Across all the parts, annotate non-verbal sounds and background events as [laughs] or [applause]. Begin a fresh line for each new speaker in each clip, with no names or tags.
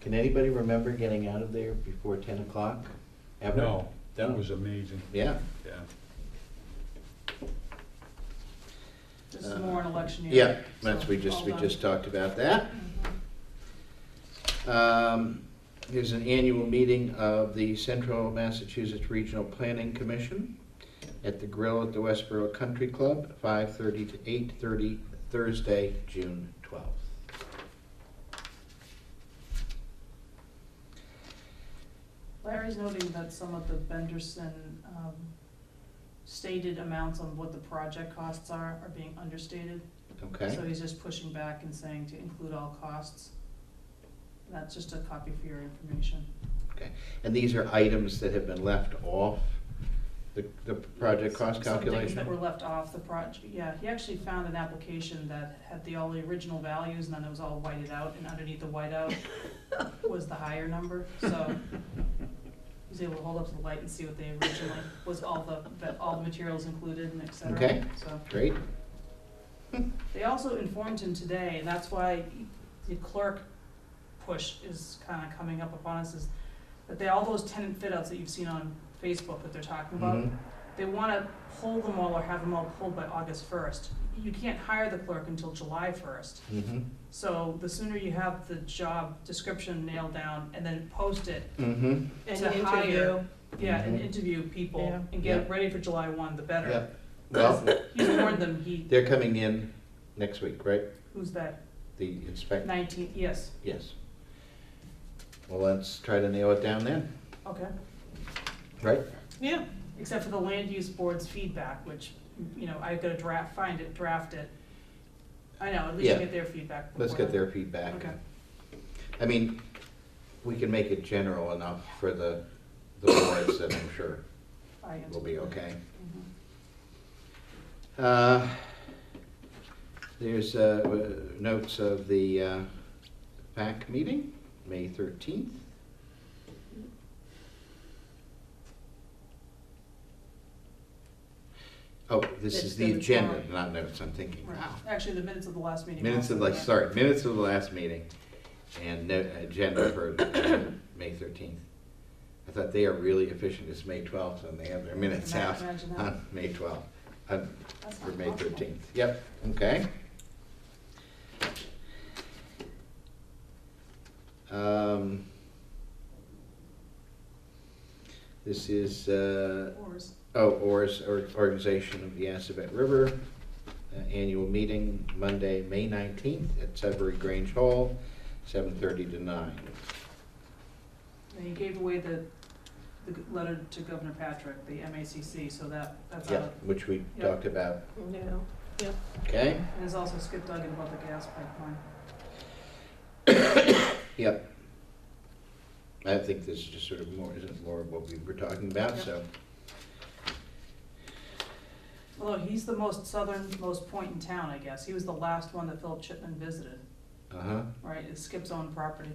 Can anybody remember getting out of there before ten o'clock? Ever?
No, that was amazing,
Yeah.
yeah.
This is more an election year.
Yeah, that's, we
so
just,
all
we
done.
just talked about that.
Mhm.
Um, There's an annual meeting of the Central Massachusetts Regional Planning Commission at the Grill at the Westboro Country Club, 5:30 to 8:30, Thursday, June 12th.
Larry's noting that some of the Benderson um, stated amounts on what the project costs are, are being understated.
Okay?
So he's just pushing back and saying to include all costs. That's just a copy for your information.
Okay. And these are items that have been left off the, the project cost
Some things
calculation?
that were left off the project, yeah, he actually found an application that had the, all the original values, and then it was all whited out, and underneath the whiteout was the higher number, so he was able to hold up to the light and see what they originally, was all the, that all the materials included and et cetera.
Okay.
So,
Great,
they also informed him today, and that's why the clerk push is kinda coming up upon us, is that they, all those tenant fit outs that you've seen on Facebook that they're talking about,
Mhm.
they want to pull them all or have them all pulled by August first. You can't hire the clerk until July first.
mhm,
So the sooner you have the job description nailed down and then post it
mhm,
And
to hire,
interview.
yeah, and
Mhm.
interview people
Yeah.
and get it
Yeah.
ready for July one, the better.
yep. Well,
He warned them, he,
they're coming in next week, right?
who's that,
The inspector,
nineteen, yes,
yes. Well, let's try to nail it down then,
okay.
right?
Yeah,
Except for the land use board's feedback, which, you know, I've got to draft, find it, draft it. I know, at least
Yeah.
get their feedback.
Let's
before
get
then.
their feedback.
Okay.
I mean, we can make it general enough for the, the boards that I'm sure
I
will be okay.
Mhm.
Uh, There's uh, w- notes of the uh, PAC meeting, May 13th. Oh, this
It's
is the
the
agenda,
report.
not notes, I'm thinking,
Right.
wow.
Actually, the minutes of the last meeting.
Minutes of,
also,
like,
yeah.
sorry, minutes of the last meeting and no agenda for uh, [coughs] May 13th. I thought they are really efficient, it's May 12th and they have their minutes
Ima-
out
imagine that.
on May 12th. I'm-
That's
for
not
May
possible.
thirteenth, yep, okay. Um, This is, uh,
Ours.
oh, ORS, or- Organization of the Assabet River, uh, annual meeting, Monday, May nineteenth, at Sudbury Grange Hall, seven thirty to nine.
And he gave away the, the g- letter to Governor Patrick, the MACC, so that, that's
Yep,
out.
which we
Yep.
talked about,
no, yeah.
okay?
And there's also Skip Duggan about the gas pipeline.
Yep. I think this is just sort of more, isn't more of what we were talking about,
Yep.
so.
Although he's the most southernmost point in town, I guess. He was the last one that Philip Chipman visited,
Uh-huh.
right? It's Skip's own property.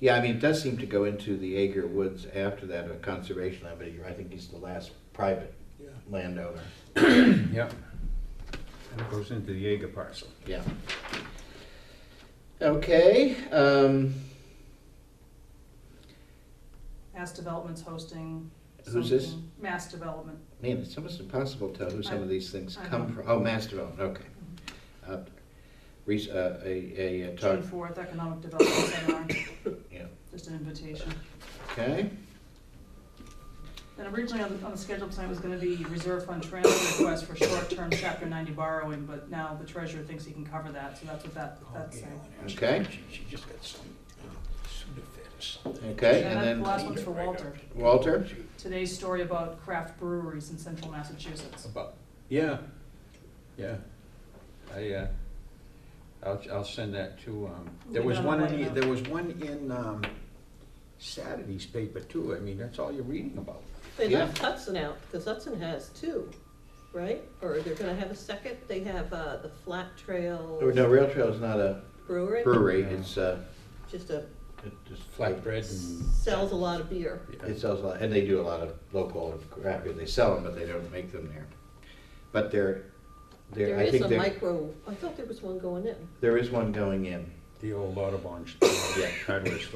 Yeah, I mean, it does seem to go into the Ager Woods after that, a conservation land, but you're- I think he's the last private
Yeah.
landowner.
Yeah. And it goes into the Jaeger parcel.
Yeah. Okay, um,
Mass Development's hosting
Who's this?
something. Mass Development.
man, it's almost impossible to tell who some of these things
I- I
come
know.
from. Oh, Mass Development, okay. Uh, Reese, uh, a, a uh, talk,
June fourth, Economic Development Seminar,
yeah,
[coughs] just an invitation.
okay,
And originally on the, on the schedule tonight was gonna be reserve fund transfer request for short-term chapter ninety borrowing, but now the treasurer thinks he can cover that, so that's what that, that's saying.
Okay.
She, she just got some uh, Sudafed or something.
okay, and
And then
then
the last one's for Walter,
Walter?
today's story about craft breweries in central Massachusetts.
About, yeah, yeah. I, uh, I'll, I'll send that to, um, there
Leave
was
it on
one,
the
in
whiteout.
the- there was one in, um, Saturday's paper too. I mean, that's all you're reading about.
They
Yeah.
left Hudson out, because Hudson has two, right? Or they're gonna have a second, they have, uh, the Flat Trail
Oh, No, Rail Trail is not a
Brewery.
brewery, it's, uh,
Just a,
it just.
Flatbread and.
sells a lot of beer.
It sells a lot, and they do a lot of local craft beer. They sell them, but they don't make them there. But they're, they're,
There
I
is
think
a
there,
micro, I thought there was one going in.
[laughs] there is one going in.
The old Audubon
Yeah.
hardware store.